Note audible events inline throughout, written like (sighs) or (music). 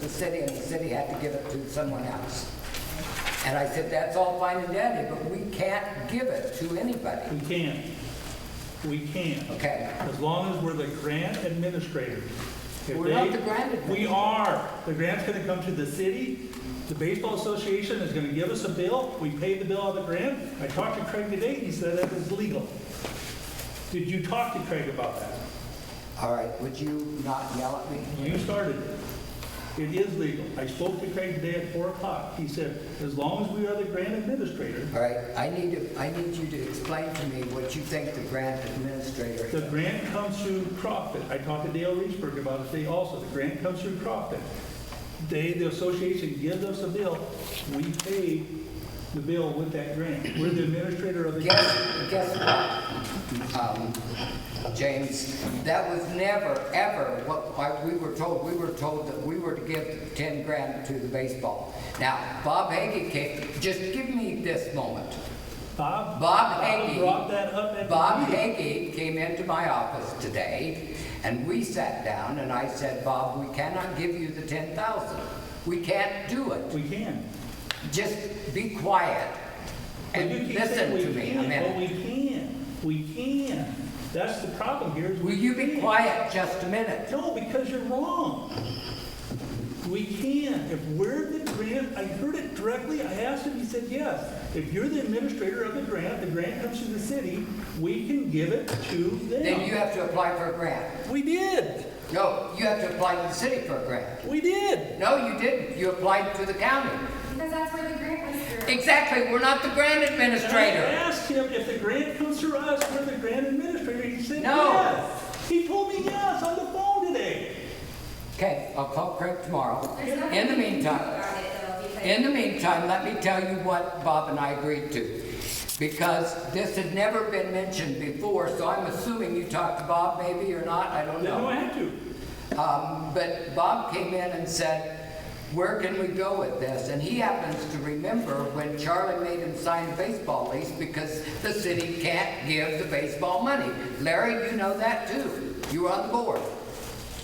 the city, and the city had to give it to someone else. And I said, that's all fine and dandy, but we can't give it to anybody. We can. We can. Okay, As long as we're the grant administrators. If We're not they- the grant We administrators. are. The grant's gonna come to the city. The baseball association is gonna give us a bill. We pay the bill on the grant. I talked to Craig today, he said that was legal. Did you talk to Craig about that? all right, would you not yell at me? You started it. It is legal. I spoke to Craig today at four o'clock. He said, as long as we are the grant administrator, All right, I need to, I need you to explain to me what you think the grant administrator The grant comes through Crofton. I talked to Dale Reesberg about it today also. The grant comes through Crofton. They, the association gives us a bill. We pay the bill with that grant. We're the administrator of the grant. Guess, guess what, um, James? That was never, ever what I- we were told. We were told that we were to give 10 grand to the baseball. Now, Bob Hagy came, just give me this moment. Bob? Bob Hagy. Brought that up at. the Bob meeting. Hagy came into my office today, and we sat down, and I said, Bob, we cannot give you the 10,000. We can't do it. We can. Just be quiet But and you keep listen saying we to me a can't, minute. But we can. We can. That's the problem here is we Will you be can't. quiet just a minute? No, because you're wrong. We can. If we're the grant, I heard it directly, I asked him, he said, yes. If you're the administrator of the grant, the grant comes to the city, we can give it to Then you them. have to apply for a grant. We did, No, you have to apply to the city for a grant. we did. No, you didn't. You applied to the county. Because that's where the grant was through. Exactly, we're not the grant And I administrator. asked him, if the grant comes through us, we're the grant administrator, he said, No. yes. He told me yes on the phone today. Okay, I'll call Craig tomorrow. There's nothing In the you can do meantime, about it, though, because- in the meantime, let me tell you what Bob and I agreed to. Because this had never been mentioned before, so I'm assuming you talked to Bob maybe or not, I don't Didn't know I know. had to. Um, But Bob came in and said, where can we go with this? And he happens to remember when Charlie made him sign a baseball lease because the city can't give the baseball money. Larry, you know that too. You were on the board.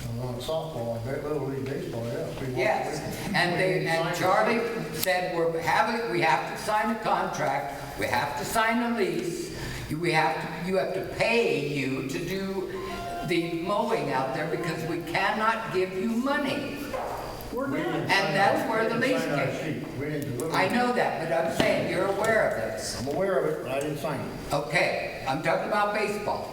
And on softball, and very little league baseball, yeah. we want- Yes. And they, and Charlie said, we're having, we have to sign a contract, we have to sign a lease, you- we have, to- you have to pay you to do the mowing out there because we cannot give you money. We're We didn't not. sign that's our- where we the didn't lease sign our came. sheet. We didn't deliver. I it. know that, but I'm saying you're aware of this. I'm aware of it, but I didn't sign it. Okay, I'm talking about baseball.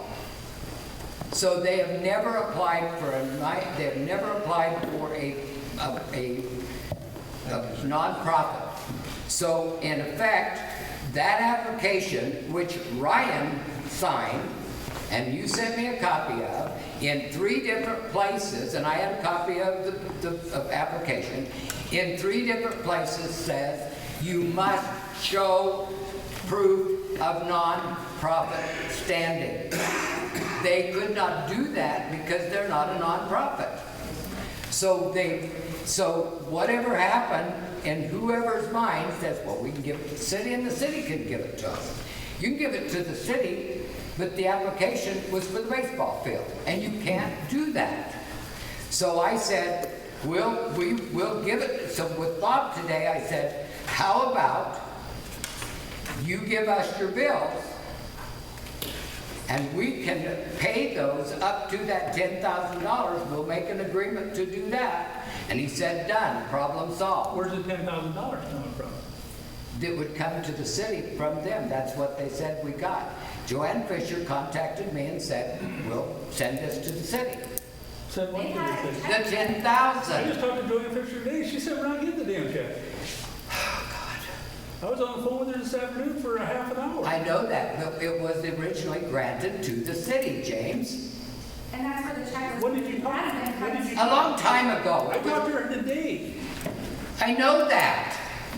So they have never applied for a night, they have never applied for a, a, a a nonprofit. So in effect, that application, which Ryan signed, and you sent me a copy of, in three different places, and I had a copy of the, the, of application, in three different places says, you must show proof of nonprofit standing. They could not do that because they're not a nonprofit. So they, so whatever happened, in whoever's mind says, well, we can give it to the city, and the city can give it to us. You can give it to the city, but the application was for the baseball field, and you can't do that. So I said, we'll, we will give it, so with Bob today, I said, how about you give us your bills, and we can pay those up to that ten thousand dollars, we'll make an agreement to do that. And he said, done, problem solved. Where's the ten thousand dollars coming from? It would come to the city from them, that's what they said we got. Joanne Fisher contacted me and said, we'll send this to the city. Said one They thing, said, had- The ten thousand. I just talked to Joanne Fisher today, she said, we're not getting the damn check. (sighs) I was on the phone with her this afternoon for a half an hour. I know that, but it was originally granted to the city, James, And that's where the check was. What did you talk- Hasn't been what did cut. you- a long time I talked ago. to her today, I know that.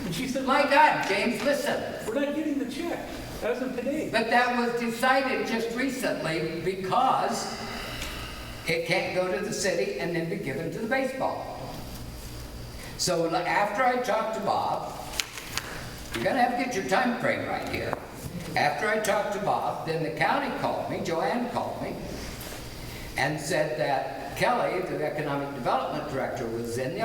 and she said, My we're God, James, listen. not getting the check, as of today. But that was decided just recently because it can't go to the city and then be given to the baseball. So l- after I talked to Bob, you're gonna have to get your time frame right here. After I talked to Bob, then the county called me, Joanne called me, and said that Kelly, the economic development director, was in the